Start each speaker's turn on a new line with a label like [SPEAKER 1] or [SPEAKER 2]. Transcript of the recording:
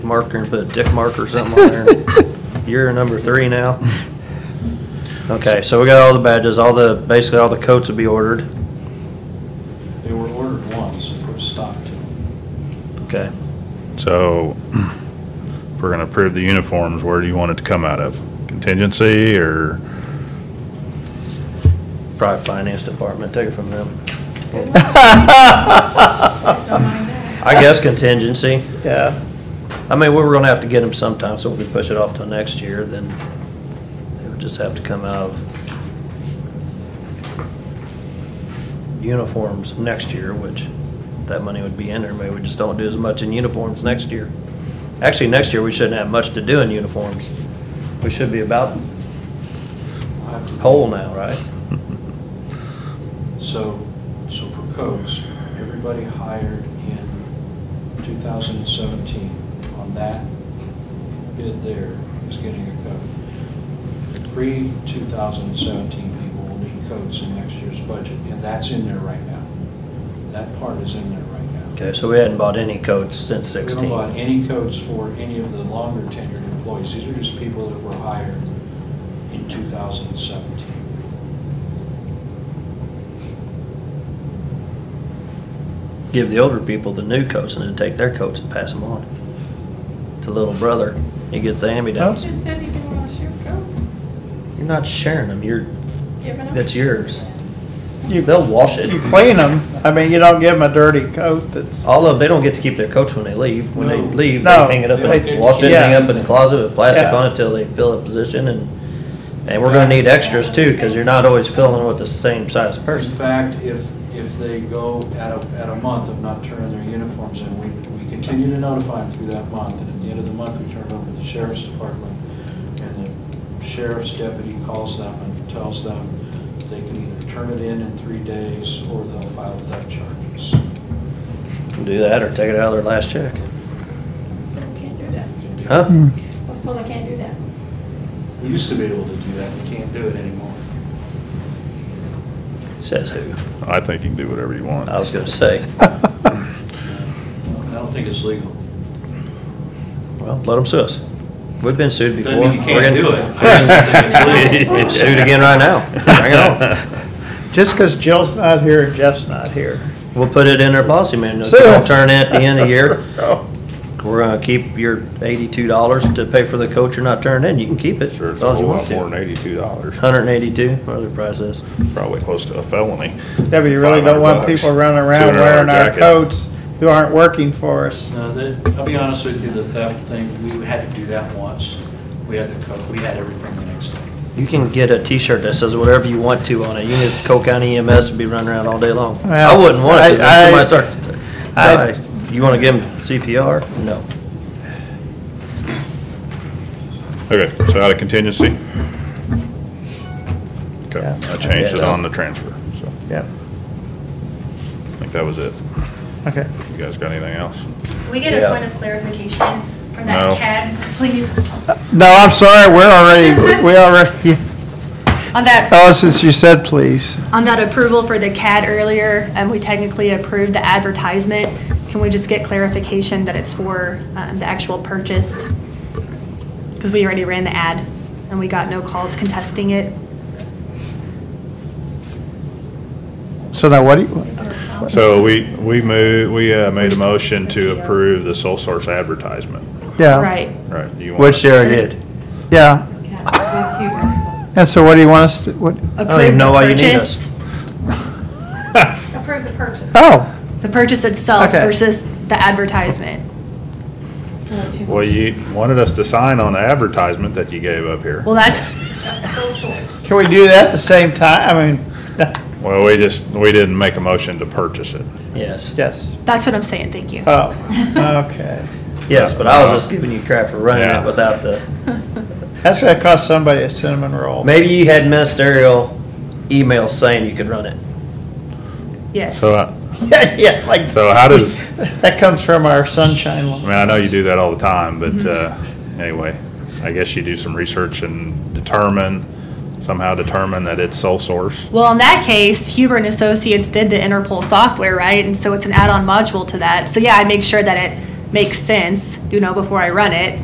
[SPEAKER 1] marker and put a dick mark or something on there. You're number three now. Okay, so we got all the badges, all the, basically all the coats will be ordered.
[SPEAKER 2] They were ordered once and put a stop to them.
[SPEAKER 1] Okay.
[SPEAKER 3] So, if we're gonna approve the uniforms, where do you want it to come out of? Contingency or,
[SPEAKER 1] Probably finance department, take it from them. I guess contingency.
[SPEAKER 4] Yeah,
[SPEAKER 1] I mean, we were gonna have to get them sometime, so if we push it off till next year, then it would just have to come out of uniforms next year, which that money would be in there, maybe we just don't do as much in uniforms next year. Actually, next year, we shouldn't have much to do in uniforms. We should be about
[SPEAKER 2] I'll have to-
[SPEAKER 1] whole now, right?
[SPEAKER 2] So, so for codes, everybody hired in 2017 on that bid there is getting a code. Pre-2017 people will need codes in next year's budget, and that's in there right now. That part is in there right now.
[SPEAKER 1] Okay, so we hadn't bought any coats since
[SPEAKER 2] We
[SPEAKER 1] sixteen.
[SPEAKER 2] don't want any codes for any of the longer tenured employees. These are just people that were hired in 2017.
[SPEAKER 1] Give the older people the new coats and then take their coats and pass them on. To little brother, he gets the hand-me-downs.
[SPEAKER 5] Just said you didn't want to shoot Oh, goats.
[SPEAKER 1] You're not sharing them, you're,
[SPEAKER 5] Giving them.
[SPEAKER 1] that's yours.
[SPEAKER 4] You-
[SPEAKER 1] They'll wash
[SPEAKER 4] you
[SPEAKER 1] it.
[SPEAKER 4] clean them, I mean, you don't give them a dirty coat that's,
[SPEAKER 1] Although they don't get to keep their coats when they leave. When they
[SPEAKER 2] No.
[SPEAKER 1] leave, they
[SPEAKER 4] No.
[SPEAKER 1] hang it up
[SPEAKER 2] They don't
[SPEAKER 1] and
[SPEAKER 2] get-
[SPEAKER 1] wash it, hang
[SPEAKER 4] Yeah.
[SPEAKER 1] up in the closet with plastic
[SPEAKER 4] Yeah.
[SPEAKER 1] on it till they fill a position and, and we're gonna need extras too, cause you're not always filling with the same size
[SPEAKER 2] In
[SPEAKER 1] person.
[SPEAKER 2] fact, if, if they go at a, at a month of not turning their uniforms in, we, we continue to notify them through that month, and at the end of the month, we turn it over to the sheriff's department, and the sheriff's deputy calls them and tells them they can either turn it in in three days, or they'll file without charges.
[SPEAKER 1] Do that or take it out of their last check.
[SPEAKER 5] So we can't do that.
[SPEAKER 4] Mm.
[SPEAKER 2] Hmm.
[SPEAKER 1] Huh?
[SPEAKER 5] Well, so they can't do that.
[SPEAKER 2] We used to be able to do that, we can't do it anymore.
[SPEAKER 1] Says who?
[SPEAKER 3] I think you can do whatever you want.
[SPEAKER 1] I was gonna say.
[SPEAKER 2] I don't think it's legal.
[SPEAKER 1] Well, let them sue us. We've been sued
[SPEAKER 2] Doesn't
[SPEAKER 1] before.
[SPEAKER 2] mean you
[SPEAKER 1] We're
[SPEAKER 2] can't
[SPEAKER 1] gonna-
[SPEAKER 2] do it. I just don't think it's legal.
[SPEAKER 1] We're Sued again right now. Bring it on.
[SPEAKER 4] just 'cause Jill's not here and Jeff's not here.
[SPEAKER 1] We'll put it in our policy manual.
[SPEAKER 4] Sue
[SPEAKER 1] Don't
[SPEAKER 4] us.
[SPEAKER 1] turn in at the end of the year.
[SPEAKER 4] Oh.
[SPEAKER 1] We're gonna keep your eighty-two dollars to pay for the coat you're not turning in. You can keep it.
[SPEAKER 3] Sure,
[SPEAKER 1] as
[SPEAKER 3] it's a
[SPEAKER 1] long as
[SPEAKER 3] whole
[SPEAKER 1] you want
[SPEAKER 3] lot more
[SPEAKER 1] to.
[SPEAKER 3] than eighty-two dollars,
[SPEAKER 1] Hundred and eighty-two, whatever the price is.
[SPEAKER 3] probably close to a felony.
[SPEAKER 4] Yeah, but you really don't
[SPEAKER 3] 500
[SPEAKER 4] want
[SPEAKER 3] bucks.
[SPEAKER 4] people running around
[SPEAKER 3] $200
[SPEAKER 4] wearing our
[SPEAKER 3] jacket.
[SPEAKER 4] coats who aren't working for us.
[SPEAKER 2] No, the, I'll be honest with you, the theft thing, we had to do that once. We had to, co- we had everything the next day.
[SPEAKER 1] You can get a t-shirt that says whatever you want to on it. You can get Cole County E EMS and be running around all day long. I
[SPEAKER 4] Well,
[SPEAKER 1] wouldn't want it, 'cause
[SPEAKER 4] I-
[SPEAKER 1] then
[SPEAKER 4] I-
[SPEAKER 1] somebody starts, to-
[SPEAKER 4] I-
[SPEAKER 1] Why? you wanna give them CPR? No.
[SPEAKER 3] Okay, so out of contingency? Okay,
[SPEAKER 4] Yeah.
[SPEAKER 3] I changed it
[SPEAKER 1] Yes.
[SPEAKER 3] on the transfer, so
[SPEAKER 4] Yep,
[SPEAKER 3] I think that was it.
[SPEAKER 4] okay.
[SPEAKER 3] You guys got anything else?
[SPEAKER 6] We get
[SPEAKER 1] Yeah.
[SPEAKER 6] a point of clarification for
[SPEAKER 3] No.
[SPEAKER 6] that CAD, please,
[SPEAKER 4] No, I'm sorry, we're already, we already,
[SPEAKER 6] on that,
[SPEAKER 4] oh, since you said please.
[SPEAKER 6] on that approval for the CAD earlier, and we technically approved the advertisement. Can we just get clarification that it's for um, the actual purchase? Because we already ran the ad, and we got no calls contesting it.
[SPEAKER 4] So now what do you,
[SPEAKER 3] So we, we moved, we uh, made a motion to approve the sole source advertisement,
[SPEAKER 4] yeah.
[SPEAKER 6] Right.
[SPEAKER 3] right? do you want-
[SPEAKER 1] Which Sarah did.
[SPEAKER 4] Yeah, and so what do you want us to,
[SPEAKER 1] I
[SPEAKER 4] what,
[SPEAKER 1] don't even
[SPEAKER 6] Approve the
[SPEAKER 1] know why you need
[SPEAKER 6] purchase-
[SPEAKER 1] us.
[SPEAKER 5] Approve the purchase.
[SPEAKER 4] oh.
[SPEAKER 6] The purchase itself
[SPEAKER 4] Okay.
[SPEAKER 6] versus the advertisement.
[SPEAKER 3] Well, you wanted us to sign on the advertisement that you gave up here.
[SPEAKER 6] Well, that's,
[SPEAKER 4] Can we do that at the same time? I mean,
[SPEAKER 3] Well, we just, we didn't make a motion to purchase it.
[SPEAKER 1] Yes.
[SPEAKER 4] yes.
[SPEAKER 6] that's what I'm saying, thank you.
[SPEAKER 4] Oh, okay.
[SPEAKER 1] Yes, but I was just giving you crap for running
[SPEAKER 3] Yeah.
[SPEAKER 1] it without the,
[SPEAKER 4] That's gonna cost somebody a cinnamon roll.
[SPEAKER 1] maybe you had ministerial emails saying you could run it.
[SPEAKER 6] Yes.
[SPEAKER 3] So, uh,
[SPEAKER 4] Yeah, yeah, like,
[SPEAKER 3] so how does,
[SPEAKER 4] that comes from our sunshine
[SPEAKER 3] I
[SPEAKER 4] law.
[SPEAKER 3] mean, I know you do that all the time, but, uh, anyway, I guess you do some research and determine, somehow determine that it's sole source.
[SPEAKER 6] Well, in that case, Huber and Associates did the Interpol software, right? And so it's an add-on module to that. So yeah, I make sure that it makes sense, you know, before I run it,